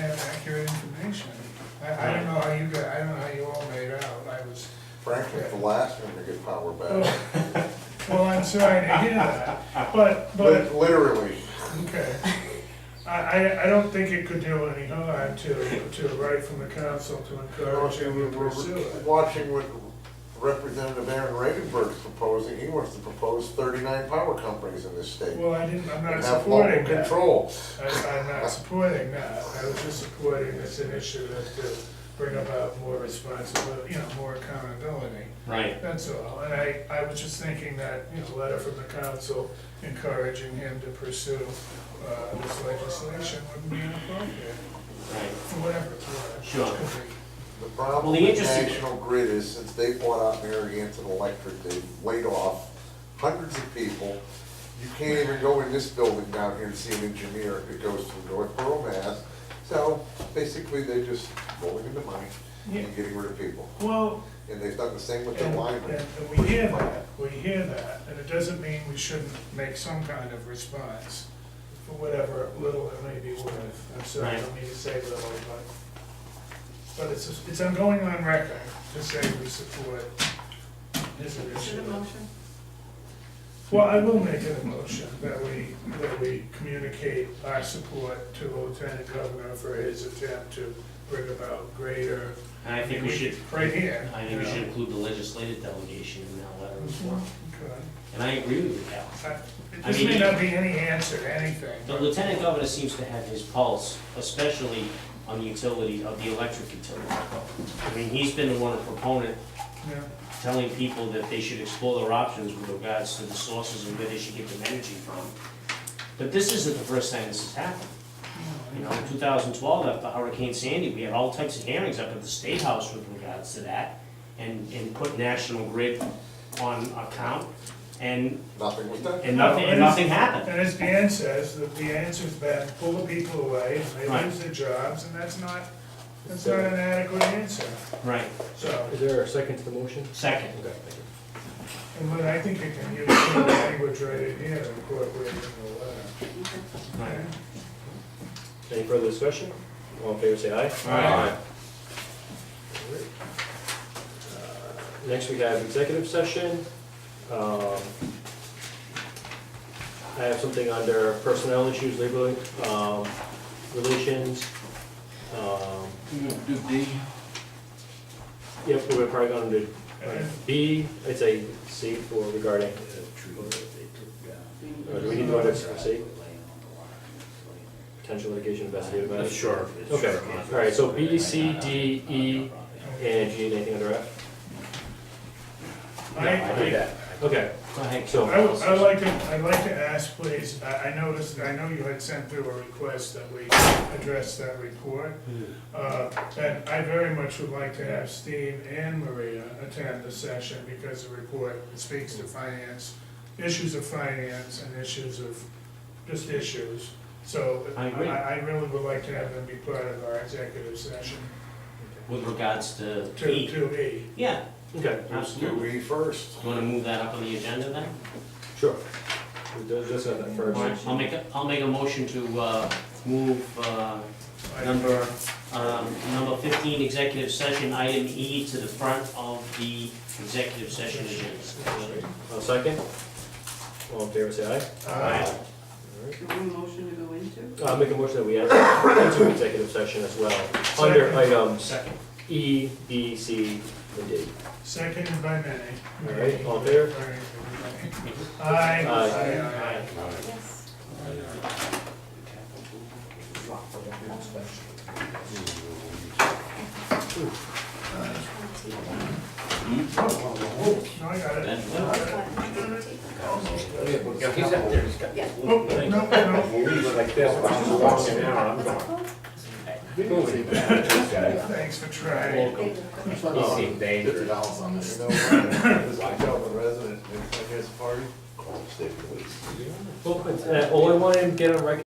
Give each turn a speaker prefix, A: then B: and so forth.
A: accurate information. I, I don't know how you got, I don't know how you all made out, I was,
B: Frankly, the last one to get power
A: Oh.
B: back,
A: well, I'm sorry to hear that, but, but,
B: Lit- literally.
A: okay. I, I, I don't think it could do any harm to, to write from the council to encourage you to pursue it.
B: Watching what Representative Aaron Regenberg's proposing, he wants to propose thirty-nine power companies in this state.
A: Well, I didn't, I'm not
B: and Have local
A: supporting that.
B: control.
A: I, I'm not supporting that, I was just supporting it's an issue that to bring about more responsibility, you know, more accountability.
C: Right.
A: That's all, and I, I was just thinking that, you know, letter from the council encouraging him to pursue, uh, this legislation wouldn't be inappropriate,
C: Right.
A: for whatever it's worth.
C: Sure.
A: Could be.
B: The
C: Well,
B: problem
C: the
B: with
C: interesting-
B: National Grid is since they bought out Narragansett Electric, they've laid off hundreds of people. You can't even go in this building down here and see an engineer if it goes through Northborough, Mass. So basically, they're just rolling into money
A: Yeah.
B: and getting rid of people.
A: Well,
B: And they've done the same with their
A: and,
B: linemen.
A: and we hear that, we hear that, and it doesn't mean we shouldn't make some kind of response for whatever little it may be worth, I'm sorry, I don't mean to say little, but, but it's, it's, I'm going on record to say we support his initiative.
D: Is it a motion?
A: Well, I will make an motion that we, that we communicate our support to Lieutenant Governor for his attempt to bring about greater.
C: And I think we should,
A: Right here.
C: I think we
A: you
C: should
A: know.
C: include the legislative delegation in that letter as well.
A: Okay.
C: And I agree with you, Cal.
A: I-
C: I
A: This may
C: mean-
A: not be any answer to anything.
C: The lieutenant governor seems to have his pulse, especially on the utility, of the electric utility. I mean, he's been the one proponent
A: Yeah.
C: telling people that they should explore their options with regards to the sources and where they should get their energy from. But this isn't the first time this has happened. You know, in two thousand twelve, after Hurricane Sandy, we had all types of hearings up at the State House with regards to that, and, and put National Grid on account, and,
B: Nothing was done.
C: and nothing, and nothing happened.
A: And as Dan says, the, the answer's been pull the people away, and they
C: Right.
A: lose their jobs, and that's not, that's not an adequate answer.
C: Right,
A: So,
E: Is there a second to the motion?
C: second.
E: Okay, thank you.
A: and Lynn, I think you can use the language right in here to incorporate in the letter.
D: Okay.
C: Right.
E: Any further discussion? All in favor, say aye. Alright. Uh, Next, we have executive session. Um, I have something under personnel issues, labor um, relations. um, Yep, we're probably going to do uh, B, I'd say C for regarding, or do we need to go to C? Potential litigation investigative matters?
C: Sure.
E: Okay, all right, so B, C, D, E, and G, anything under F?
A: I,
E: I did that. Okay,
C: Go ahead,
E: so,
A: I would, I'd like to, I'd like to ask, please, I, I noticed, I know you had sent through a request that we address that report. Uh, and I very much would like to have Steve and Maria attend the session because the report speaks to finance, issues of finance and issues of, just issues. So
C: I
A: I,
C: agree.
A: I really would like to have them be part of our executive session
C: With regards to
A: to,
C: E,
A: to E.
C: yeah,
E: okay,
B: Let's do
C: absolutely.
B: we first.
C: You wanna move that up on the agenda then?
E: sure. We'll do- Just on that first.
C: All right, I'll make, a will make a motion to, uh, move, uh, number, um, number fifteen, executive session, item E to the front of the executive session agenda.
E: I'll second. All in favor, say
A: Uh,
E: aye.
C: Alright,
D: Do we motion to go into?
E: I'll Uh, make a motion that we enter into executive session as well, under
A: Second.
E: items
C: second.
E: E, B, C, and D.
A: Seconded by many.
E: All right, all there?
A: Aye. Aye,
E: Aye.
A: aye, aye.
D: Yes.
A: No, I got it.
F: he's up there, he's got.
D: Yeah.
A: Oh, no, no,
F: Like this, I'm walking out, I'm going.
A: thanks for trying.
F: He seemed dangerous.
B: Oh, dollars on this. You know, I tell the resident, it's like his party, call the state police.
E: Well, uh, all I wanted to get a record